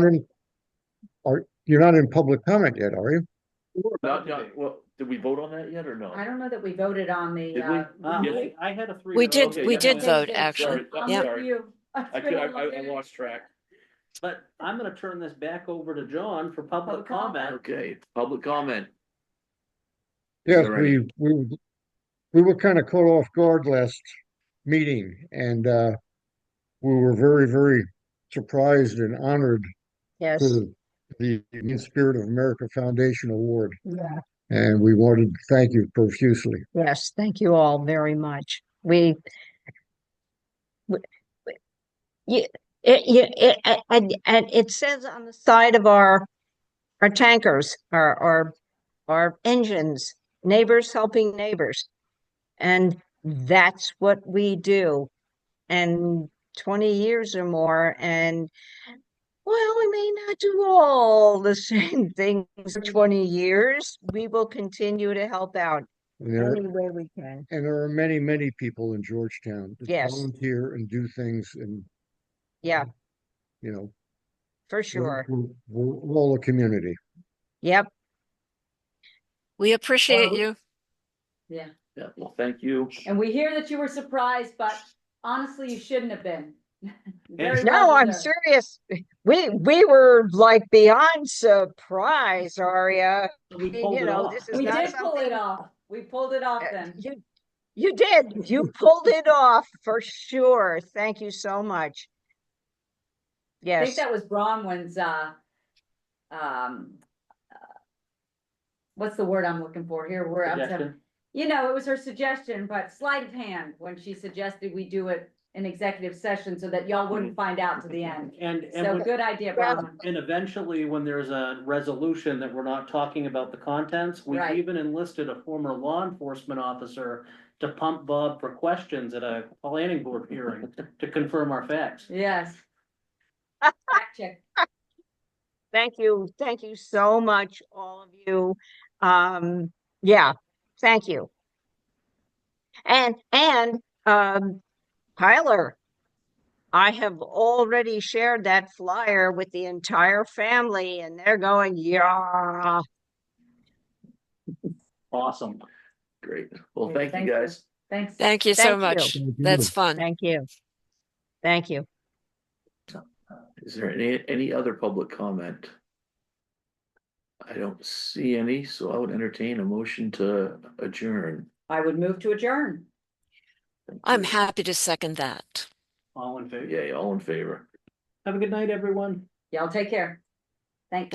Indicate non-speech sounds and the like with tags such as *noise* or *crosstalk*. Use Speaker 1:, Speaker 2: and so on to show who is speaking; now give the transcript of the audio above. Speaker 1: not in, are, you're not in public comment yet, are you?
Speaker 2: Not, not, well, did we vote on that yet or no?
Speaker 3: I don't know that we voted on the,
Speaker 2: Did we?
Speaker 3: uh.
Speaker 4: Um,
Speaker 2: Yeah.
Speaker 4: I I had a three.
Speaker 5: We
Speaker 4: to
Speaker 5: did-
Speaker 4: vote.
Speaker 2: Okay,
Speaker 5: we
Speaker 2: yeah,
Speaker 5: did
Speaker 2: I'm
Speaker 5: vote,
Speaker 2: sorry.
Speaker 5: actually.
Speaker 2: I'm
Speaker 5: Yeah.
Speaker 2: sorry. I could, I, I I lost track.
Speaker 4: But I'm gonna turn this back over to John for public
Speaker 3: Public comment.
Speaker 4: comment.
Speaker 2: Okay, public comment.
Speaker 1: Yes,
Speaker 2: All right.
Speaker 1: we, we, were- we were kind of caught off guard last meeting and, uh, we were very, very surprised and honored
Speaker 5: Yes,
Speaker 1: for the Indian Spirit of America Foundation Award.
Speaker 5: Yeah.
Speaker 1: And we wanted to thank you profusely.
Speaker 5: yes, thank you all very much. We w- w- you, it, you, it, a- and, and it says on the side of our, our tankers, our, our, our engines, neighbors helping neighbors. And that's what we do. And twenty years or more and Well, we may not do all the *laughs* same things for 20 years. We will continue to help out
Speaker 1: And there,
Speaker 5: any way we can.
Speaker 1: and there are many, many people in Georgetown that
Speaker 5: Yes.
Speaker 1: volunteer and do things and,
Speaker 5: Yeah,
Speaker 1: you know,
Speaker 5: for
Speaker 1: we're-
Speaker 5: sure.
Speaker 1: we're, we're all a community.
Speaker 5: Yep.
Speaker 6: We appreciate
Speaker 3: Well-
Speaker 6: you.
Speaker 3: Yeah,
Speaker 2: Yeah, well, thank you.
Speaker 3: and we hear that you were surprised, but honestly, you shouldn't
Speaker 2: *laughs*
Speaker 3: have been. Very well
Speaker 5: No, I'm
Speaker 3: deserved.
Speaker 5: serious. We, we were like beyond surprised, Aria.
Speaker 4: We
Speaker 5: You
Speaker 4: pulled it
Speaker 5: know,
Speaker 4: off.
Speaker 5: this is
Speaker 3: We
Speaker 5: not
Speaker 3: did pull it
Speaker 5: something-
Speaker 3: off. We pulled it off
Speaker 5: Uh,
Speaker 3: then.
Speaker 5: You, you
Speaker 3: *laughs*
Speaker 5: did. You pulled it off for sure. Thank you so much.
Speaker 3: I think
Speaker 5: Yes,
Speaker 3: that was Bronwyn's, uh, um, uh, what's the word I'm looking for here? Where I'm, having-
Speaker 4: Suggestion.
Speaker 3: you know, it was her suggestion, but sleight of hand when she suggested we do it in executive session so that y'all
Speaker 2: Hmm.
Speaker 3: wouldn't find out to the end.
Speaker 4: And,
Speaker 3: So
Speaker 4: and, when-
Speaker 3: good idea,
Speaker 5: Well-
Speaker 3: Bronwyn.
Speaker 4: and eventually, when there's a resolution that we're not talking about the contents, we
Speaker 3: Right.
Speaker 4: even enlisted a former law enforcement officer to pump Bob for questions at a planning board
Speaker 5: *laughs*
Speaker 4: hearing to confirm our facts.
Speaker 3: *laughs* Yes. Fact check.
Speaker 5: thank you. Thank you so much, all of you. Um, yeah, thank you. And, and, um, Tyler, I have already shared that flyer with the entire family and they're going, yeah.
Speaker 4: Awesome.
Speaker 2: Great. Well,
Speaker 3: Okay,
Speaker 2: thank
Speaker 3: thank
Speaker 2: you
Speaker 3: you.
Speaker 2: guys.
Speaker 3: Thanks.
Speaker 6: Thank you so
Speaker 5: Thank
Speaker 6: much.
Speaker 1: you.
Speaker 6: That's fun.
Speaker 5: Thank you. Thank you.
Speaker 2: Is there any, any other public comment? I don't see any, so I would entertain a motion to adjourn.
Speaker 3: I would move to adjourn.
Speaker 6: I'm happy to second that.
Speaker 4: All in favor?
Speaker 2: Yay, all in favor.
Speaker 4: Have a good night, everyone.
Speaker 3: Y'all take care. Thank